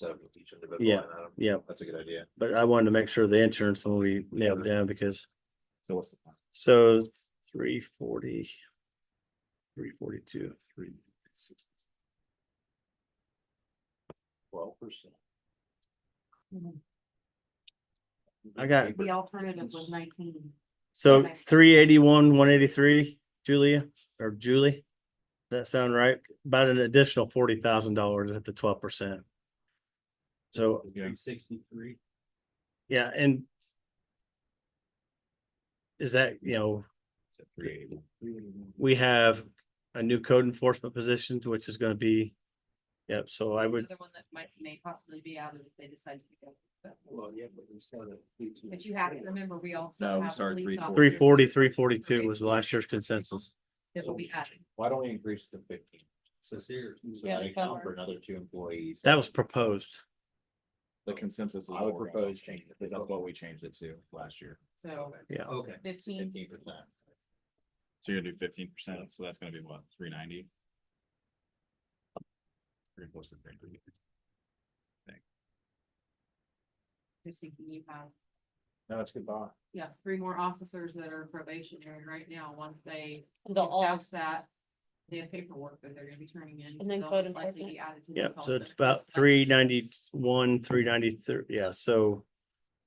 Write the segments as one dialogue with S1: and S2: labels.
S1: set up with each individual.
S2: Yeah,
S1: line item.
S2: yeah.
S1: That's a good idea.
S2: But I wanted to make sure the insurance one we nailed down because,
S1: So what's the? plan?
S2: so three forty. Three forty-two, three,
S1: Twelve percent.
S2: I got,
S3: The alternative was nineteen.
S2: so
S3: Nice.
S2: three eighty-one, one eighty-three, Julia, or Julie? That sound right? About an additional forty thousand dollars at the twelve percent. So,
S1: Three sixty-three.
S2: yeah, and. Is that, you know,
S1: Three eighty-one.
S2: we have a new code enforcement position, which is gonna be. Yep, so I would,
S3: Another one that might, may possibly be added if they decide to. pick up. But-
S1: Well, yeah, but we still have.
S3: But you have to remember, we
S1: No,
S3: also have.
S1: sorry,
S3: police
S1: 340.
S3: officers.
S2: three forty, three forty-two was last year's consensus.
S3: It will be added.
S1: Why don't we increase it to fifteen? So here, so
S3: Yeah,
S1: I
S3: to
S1: account for
S3: cover.
S1: another two employees.
S2: That was proposed.
S4: The consensus. is
S1: I would
S4: what we're gonna
S1: propose
S4: change
S1: change
S4: it,
S1: it.
S4: That's what we changed it to last year.
S3: So
S2: Yeah.
S1: Okay.
S3: fifteen,
S1: Fifteen percent.
S4: So you're gonna do fifteen percent, so that's gonna be what, three ninety? What's the thing?
S3: just thinking you have,
S1: No, that's good buy.
S3: yeah, three more officers that are probationary right now, once they
S5: They'll all,
S3: pass that. They have paperwork that they're gonna be turning in. so
S5: then
S3: they'll
S5: code
S3: most likely be added to the
S2: Yeah,
S3: health
S2: so it's
S3: benefits
S2: about
S3: stuff.
S2: three ninety-one, three ninety-three, yeah, so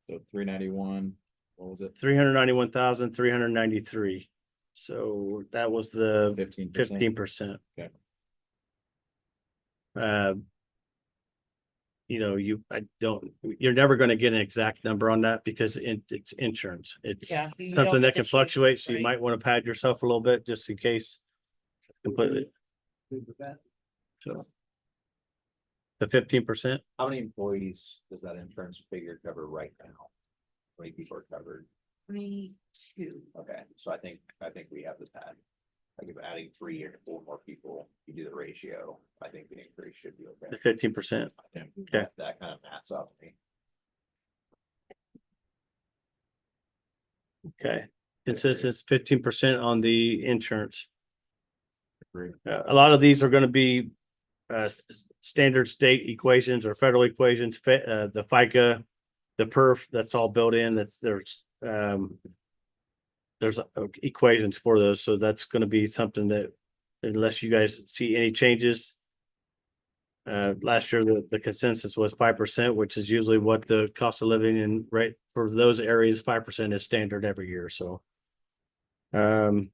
S4: So three ninety-one, what was it?
S2: three hundred ninety-one thousand, three hundred ninety-three. So that was the
S4: Fifteen percent.
S2: fifteen percent.
S4: Okay.
S2: Uh. You know, you, I don't, you're never gonna get an exact number on that because in, it's insurance. It's
S5: Yeah, you don't
S2: something that
S5: get to
S2: can
S5: choose,
S2: fluctuate, so you
S5: right?
S2: might wanna pad yourself a little bit just in case. Completely, the fifteen percent,
S1: How many employees does that insurance figure cover right now? How many people are covered?
S3: Twenty-two.
S1: Okay, so I think, I think we have the pad. Like if adding three or four more people, you do the ratio, I think the increase should be okay.
S2: the fifteen percent.
S1: I think
S2: Okay.
S1: That kind of maps up. to me.
S2: Okay, consensus fifteen percent on the insurance.
S4: Agree.
S2: Uh, a lot of these are gonna be uh s- s- standard state equations or federal equations, fi- uh, the FICA, the perf, that's all built in, that's there's um there's uh, equations for those, so that's gonna be something that unless you guys see any changes. Uh, last year, the the consensus was five percent, which is usually what the cost of living and rate for those areas, five percent is standard every year, so. Um.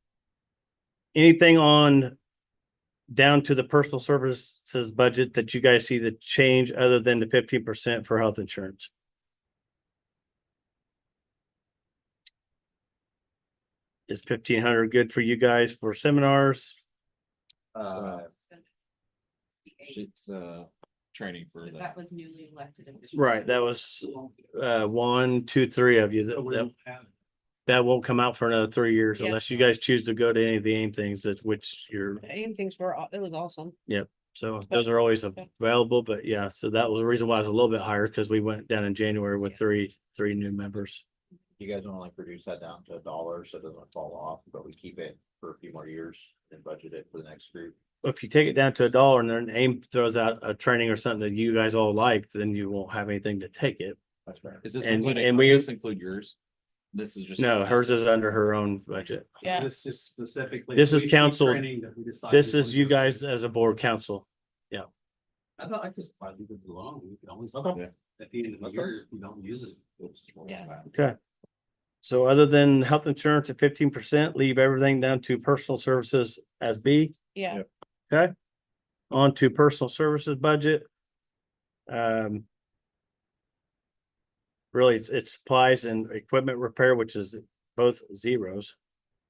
S2: Anything on down to the personal services budget that you guys see the change other than the fifteen percent for health insurance? Is fifteen hundred good for you guys for seminars?
S1: Uh,
S4: It's, uh, training for the,
S3: That was newly elected. officials.
S2: Right, that was uh one, two, three of you.
S1: Uh,
S2: That- That that won't come out for another three years
S5: Yeah.
S2: unless you guys choose to go to any of the AIM things that which you're,
S5: Ian things were, aw- it was awesome.
S2: so those are always available, but yeah, so that was the reason why it's a little bit higher because we went down in January with three, three new members.
S1: you guys wanna like reduce that down to a dollar so it doesn't fall off, but we keep it for a few more years and budget it for the next group.
S2: If you take it down to a dollar and then AIM throws out a training or something that you guys all like, then you won't have anything to take it.
S1: That's right.
S4: is this
S2: And-
S4: including,
S2: and we-
S4: does this include yours? This is just.
S2: No, hers is under her own budget.
S5: Yeah,
S6: This is specifically.
S2: This is
S6: police chief
S2: council.
S6: training that we decided
S2: This is
S6: was
S2: you
S6: gonna be.
S2: guys as a board council.
S6: I thought I just, I leave it alone. We can always,
S1: Okay.
S6: at the end of the
S1: Okay.
S6: year, if we don't use it.
S5: Yeah.
S2: So other than health insurance at fifteen percent, leave everything down to personal services as B.
S5: yeah.
S2: On to personal services budget. Um. Really, it's, it's supplies and equipment repair, which is both zeros.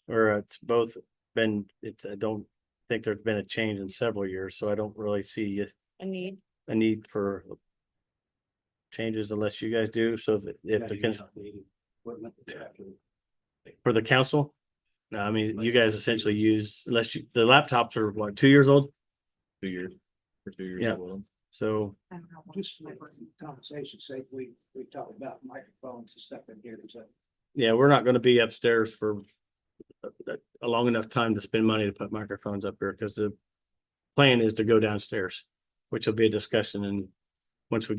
S2: Or it's both been, it's, I don't think there's been a change in several years, so I don't really see
S5: I need,
S2: a need for. Changes unless you guys do, so if, if the, cons- for the council. No, I mean, you guys essentially use, unless you, the laptops are what, two years old,
S4: Two years. For two years.
S2: Yeah.
S4: old.
S2: so.
S3: I don't know.
S7: Just for conversation's sake, we, we talked about microphones and stuff in here, so.
S2: Yeah, we're not gonna be upstairs for a- a- a long enough time to spend money to put microphones up here, because the plan is to go downstairs, which will be a discussion and once we get